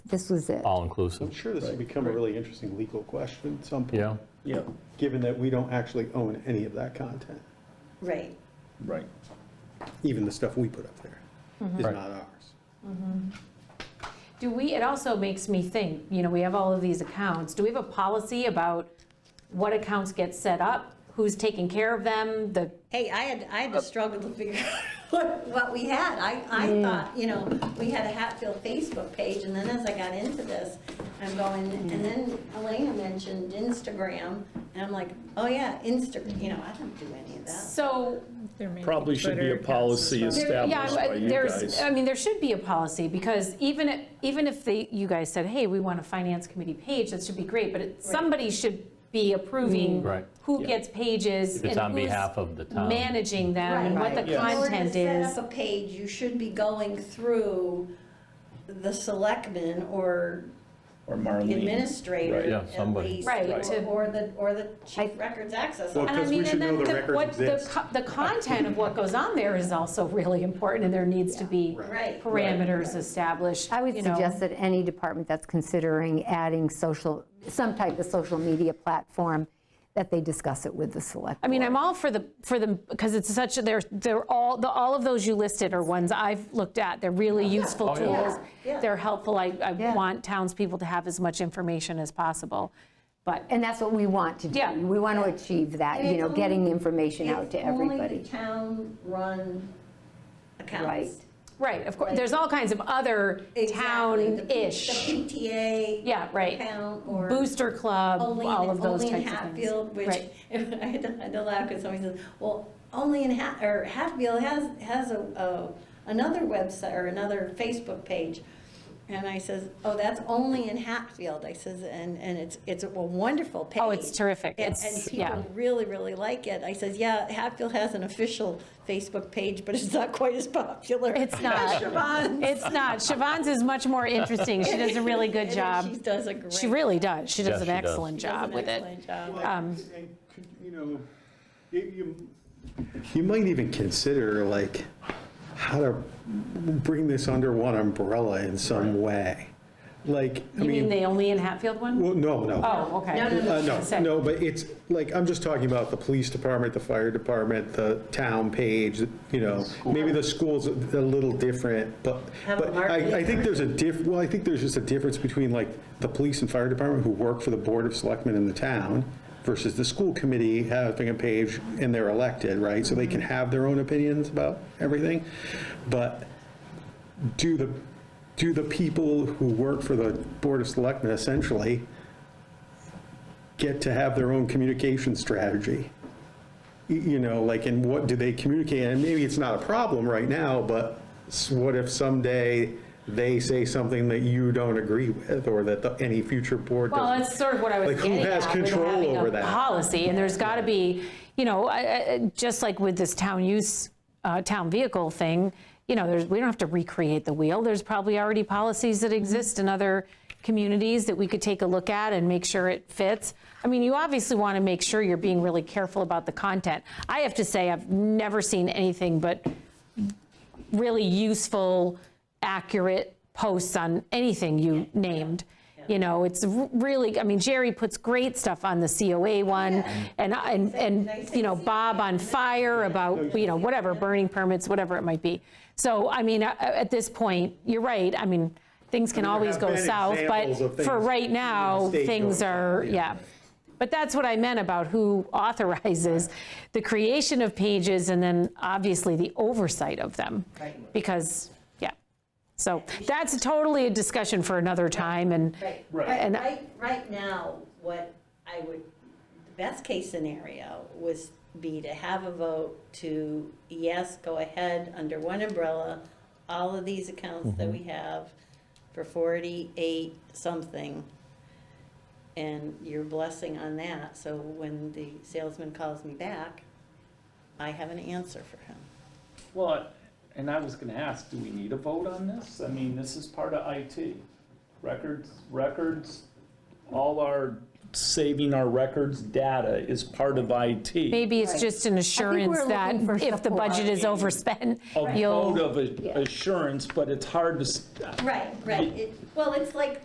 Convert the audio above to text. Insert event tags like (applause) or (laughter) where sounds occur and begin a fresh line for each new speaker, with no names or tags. This was it.
Oh.
all-inclusive.
I'm sure this will become a really interesting legal question at some point.
Yeah,
Yeah,
Given that we don't actually own any of that content,
Right.
right.
even the stuff we put up there is
Right.
not ours.
Do we, it also makes me think, you know, we have all of these accounts. Do we have a policy about what accounts get set up, who's taking care of them, the,
Hey, I had, I had to struggle to figure (laughs) out what, what we had. I, I thought, you know, we had a Hatfield Facebook page, and then as I got into this, I'm going, and then Elena mentioned Instagram, and I'm like, oh yeah, Insta, you know, I don't do any of that.
so,
Probably should be a policy
there- yeah,
established by
I-
you
there's,
guys.
I mean, there should be a policy, because even, if- even if they, you guys said, hey, we want a finance committee page, that should be great, but it- somebody should be
Mm.
approving
Right.
who gets pages
it's on
and
behalf
who's
of the town.
managing them and what
Right.
the content
In order to
is.
set up a page, you should be going through the selectmen or
Or
the
Marlene.
administrator
Right. Yeah,
at
somebody.
least,
Right,
or-
to-
Or the, or the chief records access. officer.
And I
Because we
mean,
should
and
know
then
the
the,
records
what, the,
exist.
co- the content of what goes on there is also really important, and there needs to be
Right.
parameters established,
I would
you know.
suggest that any department that's considering adding social, some type of social media platform, that they discuss it with the select.
I mean, I'm all for the, for the, because it's such, a- they're, they're all, the all of those you listed are ones I've looked at. They're really useful
Oh, yeah.
tools.
Yeah.
They're helpful. I, I
Yeah.
want townspeople to have as much information as possible. But,
And that's what we want to do.
Yeah.
We want to achieve that, you know, getting the information out to
Only the
everybody.
town-run
Right.
accounts.
right, of course, there's all kinds of other
Exactly. The P-
town-ish,
The PTA.
Yeah, right.
Account or.
booster club,
Only in-
all of those types of things.
Only in Hatfield, which, I (laughs)
Right.
had to- I had to laugh because somebody says, well, only in Hat, or Hatfield has, has a, a- another website or another Facebook page. And I says, oh, that's only in Hatfield. I says, and, and it's, it's a wonderful page.
Oh, it's terrific.
And-
It's-
And
yeah.
people really, really like it. I says, yeah, Hatfield has an official Facebook page, but it's not quite as popular.
It's not.
(laughs) as Siobhan's."
It's not. Siobhan's is much more interesting. She does a really good
And She
job.
does a great.
She really does. She
Yes,
does
she
an
does.
excellent
she does
job
an
with it.
excellent job.
Well,
Um,
and could, You know, you, you- you might even consider like how to bring this under one umbrella in some way. Like, I
You mean
mean,
the only in Hatfield one?
well, no, no.
Oh, okay.
No, no, no.
Uh,
Say.
No, no, but it's, like, I'm just talking about the police department, the fire department, the town page, you know, maybe the school's a a little different, but,
Have a
but I, I think there's a diff, well, I think there's just a difference between, like, the police and fire department who work for the board of selectmen in the town versus the school committee having a page and they're elected, right? So they can have their own opinions about everything, but do the, do the people who work for the board of selectmen essentially get to have their own communication strategy. Y- You know, like, and what do they communicate? And maybe it's not a problem right now, but s- what if someday they say something that you don't agree with or that the- any future board
Well,
doesn't?
that's sort of what I was
Like, who
getting at.
has
with
control
having a
over that?
Policy, and there's got to be, you know, I- I- I- just like with this town use, uh, town vehicle thing, you know, there's, we don't have to recreate the wheel. There's probably already policies
Mm-hmm.
that exist in other communities that we could take a look at and make sure it fits. I mean, you obviously want to make sure you're being really careful about the content. I have to say, I've never seen anything but really useful, accurate posts on anything you named. You know, it's r- really, I mean, Jerry puts great stuff on the COA one, and, and, and, you know, Bob on fire about, you know, whatever, burning permits, whatever it might be. So, I mean, uh, at this point, you're right, I mean, things can
there
always
have
go
been
south,
examples of
but for
things
right
in the
now,
state
things
going
are,
south,
yeah. But that's what I meant about who authorizes the creation of pages and then obviously the oversight of them. Because, yeah, so that's totally a discussion for another time and,
Right,
And-
right, right, right now, what I would, the best case scenario was be to have a vote to, yes, go ahead, under one umbrella, all of these accounts that we have for forty-eight something, and your blessing on that, so when the salesman calls me back, I have an answer for him.
Well, and I was gonna ask, do we need a vote on this? I mean, this is part of IT. Records, records, all our, saving our records data is part of IT.
maybe it's just an assurance
we're
that
looking for
if the budget is overspent,
A
you'll.
vote of assurance, but it's hard to, s-
Right, right, well, it's like